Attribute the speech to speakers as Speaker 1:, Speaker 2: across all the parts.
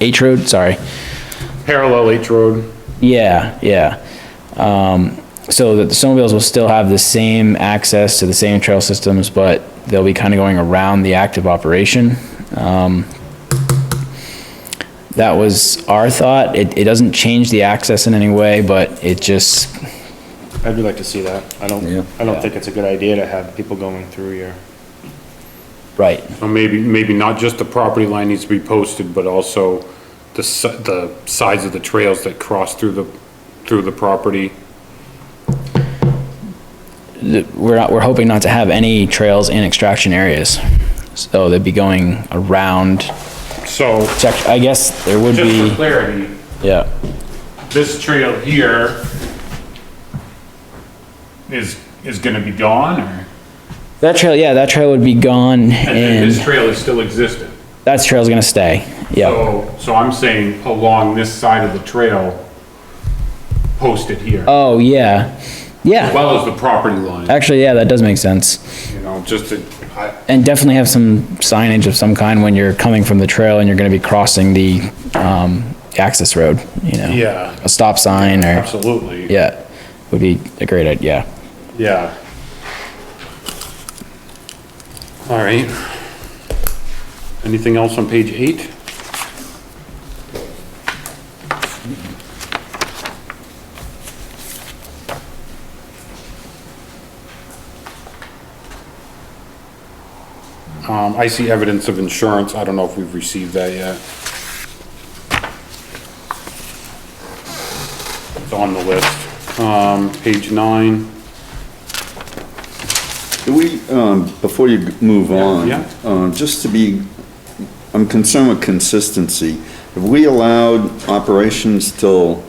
Speaker 1: H Road, sorry.
Speaker 2: Parallel H Road.
Speaker 1: Yeah, yeah. Um, so that the snowmobiles will still have the same access to the same trail systems, but they'll be kind of going around the active operation. Um, that was our thought. It, it doesn't change the access in any way, but it just,
Speaker 2: I'd like to see that. I don't, I don't think it's a good idea to have people going through your.
Speaker 1: right,
Speaker 3: Or maybe, maybe not just the property line needs to be posted, but also the, si- the sides of the trails that cross through the, through the property.
Speaker 1: we're not, we're hoping not to have any trails in extraction areas. So they'd be going around,
Speaker 3: So,
Speaker 1: check, I guess there would
Speaker 3: just for
Speaker 1: be,
Speaker 3: clarity,
Speaker 1: yeah,
Speaker 3: this trail here is, is gonna be gone, or?
Speaker 1: that trail, yeah, that trail would be gone
Speaker 3: And then this
Speaker 1: and
Speaker 3: trail is still existent.
Speaker 1: that trail's gonna stay, yeah.
Speaker 3: So, so I'm saying along this side of the trail, posted here, as
Speaker 1: Oh, yeah, yeah,
Speaker 3: well as the property line,
Speaker 1: actually, yeah, that does make sense.
Speaker 3: you know, just to, I,
Speaker 1: And definitely have some signage of some kind when you're coming from the trail and you're gonna be crossing the, um, access road, you know?
Speaker 3: Yeah.
Speaker 1: A stop sign or,
Speaker 3: absolutely.
Speaker 1: yeah, would be a great idea,
Speaker 3: Yeah. All right. Anything else on page eight? Um, I see evidence of insurance. I don't know if we've received that yet. It's on the list. Um, page nine.
Speaker 4: Do we, um, before you move on?
Speaker 3: yeah.
Speaker 4: Um, just to be, I'm concerned with consistency. Have we allowed operations till two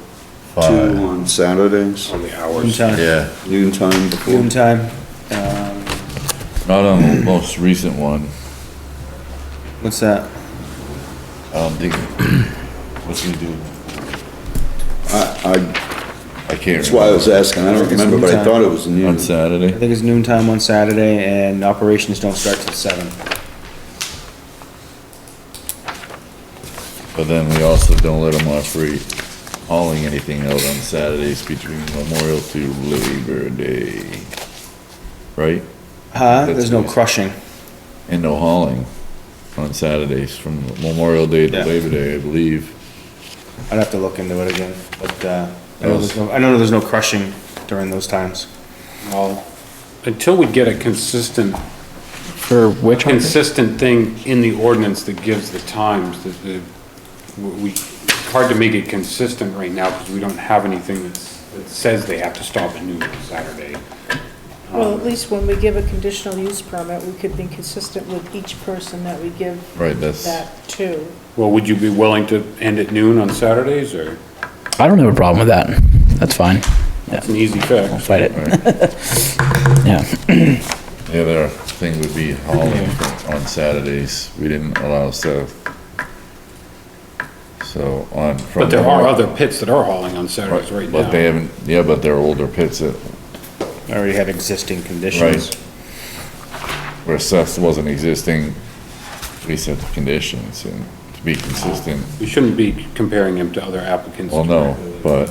Speaker 5: Five.
Speaker 4: on Saturdays,
Speaker 3: On the hours.
Speaker 2: Noon time,
Speaker 5: Yeah,
Speaker 4: noon time before?
Speaker 2: noon time. Um,
Speaker 5: not on the most recent one,
Speaker 2: what's that?
Speaker 5: I don't think, what's he doing?
Speaker 4: I,
Speaker 5: I can't.
Speaker 4: that's why I was asking, I don't remember, but I thought it was
Speaker 5: remember.
Speaker 4: noon.
Speaker 5: On Saturday,
Speaker 2: I think it's noon time on Saturday and operations don't start till seven.
Speaker 5: but then we also don't let him off free hauling anything out on Saturdays between Memorial to Labor Day. Right?
Speaker 2: Huh?
Speaker 5: That's
Speaker 2: There's no
Speaker 5: nice.
Speaker 2: crushing.
Speaker 5: And no hauling on Saturdays from Memorial Day to
Speaker 2: Yeah.
Speaker 5: Labor Day, I believe.
Speaker 2: I'd have to look into it again, but, uh, I know
Speaker 5: Yes.
Speaker 2: there's no, I know there's no crushing during those times.
Speaker 3: Well, until we get a consistent,
Speaker 1: for which one?
Speaker 3: consistent thing in the ordinance that gives the times, that the, we, it's hard to make it consistent right now because we don't have anything that's, that says they have to stop at noon on Saturday.
Speaker 6: Well, at least when we give a conditional use permit, we could be consistent with each person that we give
Speaker 5: Right, that's,
Speaker 6: that to.
Speaker 3: Well, would you be willing to end at noon on Saturdays or?
Speaker 1: I don't have a problem with that, that's fine,
Speaker 3: It's an easy fix.
Speaker 1: fight it, yeah.
Speaker 5: the other thing would be hauling on Saturdays. We didn't allow stuff. So on. from
Speaker 3: But there are
Speaker 5: Memorial-
Speaker 3: other pits that are hauling on Saturdays right
Speaker 5: Right, but they
Speaker 3: now.
Speaker 5: haven't, yeah, but they're older pits that,
Speaker 2: I already had existing conditions.
Speaker 5: Right. where stuff wasn't existing, we set the conditions and to be consistent,
Speaker 3: We shouldn't be comparing them to other applicants.
Speaker 5: well, no, but,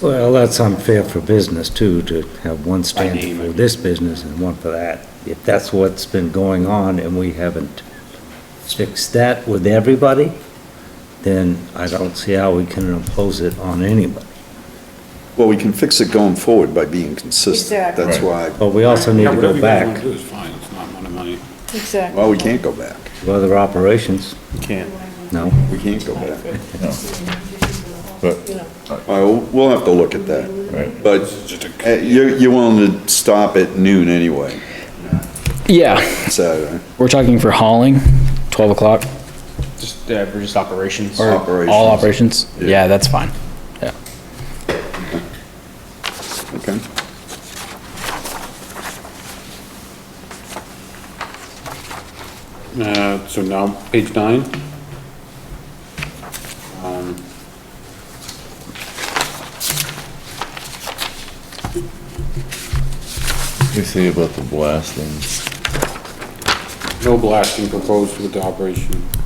Speaker 7: Well, that's unfair for business too, to have one
Speaker 3: name,
Speaker 7: standard
Speaker 3: I
Speaker 7: for this business and one for that. If that's what's been going on and we haven't fixed that with everybody, then I don't see how we can impose it on anybody.
Speaker 4: Well, we can fix it going forward by being consistent,
Speaker 6: Exactly.
Speaker 4: that's why,
Speaker 7: But we also need
Speaker 3: Yeah,
Speaker 7: to
Speaker 3: whatever
Speaker 7: go
Speaker 3: you guys want
Speaker 7: back
Speaker 3: to do is fine. It's not one of my,
Speaker 6: Exactly.
Speaker 4: well, we can't go back,
Speaker 7: to other operations,
Speaker 2: Can't.
Speaker 7: no?
Speaker 4: we can't go back.
Speaker 5: but,
Speaker 6: You know,
Speaker 4: All right, we'll have to look at that,
Speaker 5: right.
Speaker 4: but uh, you're, you're willing to stop at noon anyway,
Speaker 1: Yeah,
Speaker 4: Saturday,
Speaker 1: we're talking for hauling, 12 o'clock,
Speaker 2: Just, uh, we're just operations.
Speaker 1: all
Speaker 4: operations,
Speaker 1: operations? Yeah, that's fine. Yeah.
Speaker 4: okay?
Speaker 3: uh, so now, page nine?
Speaker 5: You say about the blasting.
Speaker 3: No blasting proposed with the operation.